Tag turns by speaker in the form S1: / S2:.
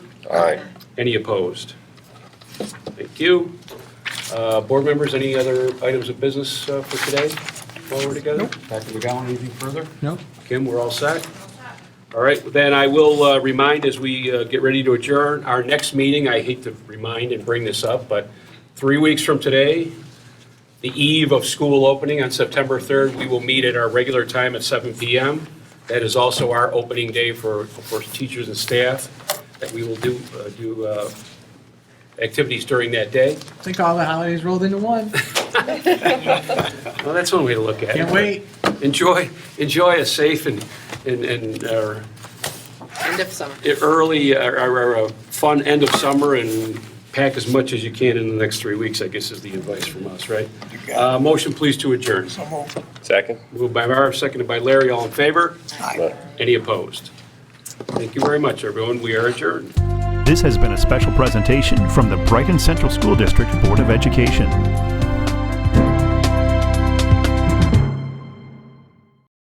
S1: Aye.
S2: Any opposed? Thank you. Uh, Board members, any other items of business uh, for today while we're together?
S3: Dr. McGowan, anything further?
S4: No?
S2: Kim, we're all set? All right, then I will uh, remind, as we uh, get ready to adjourn, our next meeting, I hate to remind and bring this up, but three weeks from today, the eve of school opening on September 3rd, we will meet at our regular time at 7 PM. That is also our opening day for, for teachers and staff, that we will do, uh, do uh, activities during that day.
S4: I think all the holidays rolled into one.
S2: Well, that's one way to look at it.
S4: Can't wait.
S2: Enjoy, enjoy a safe and, and, and uh,
S5: End of summer.
S2: it early, uh, or- or or a fun end of summer and pack as much as you can in the next three weeks, I guess is the advice from us, right? Uh, Motion, please, to adjourn.
S1: Second?
S2: Moved by Marv, seconded by Larry, all in favor?
S1: Aye.
S2: Any opposed? Thank you very much, everyone. We are adjourned.
S6: This has been a special presentation from the Brighton Central School District Board of Education.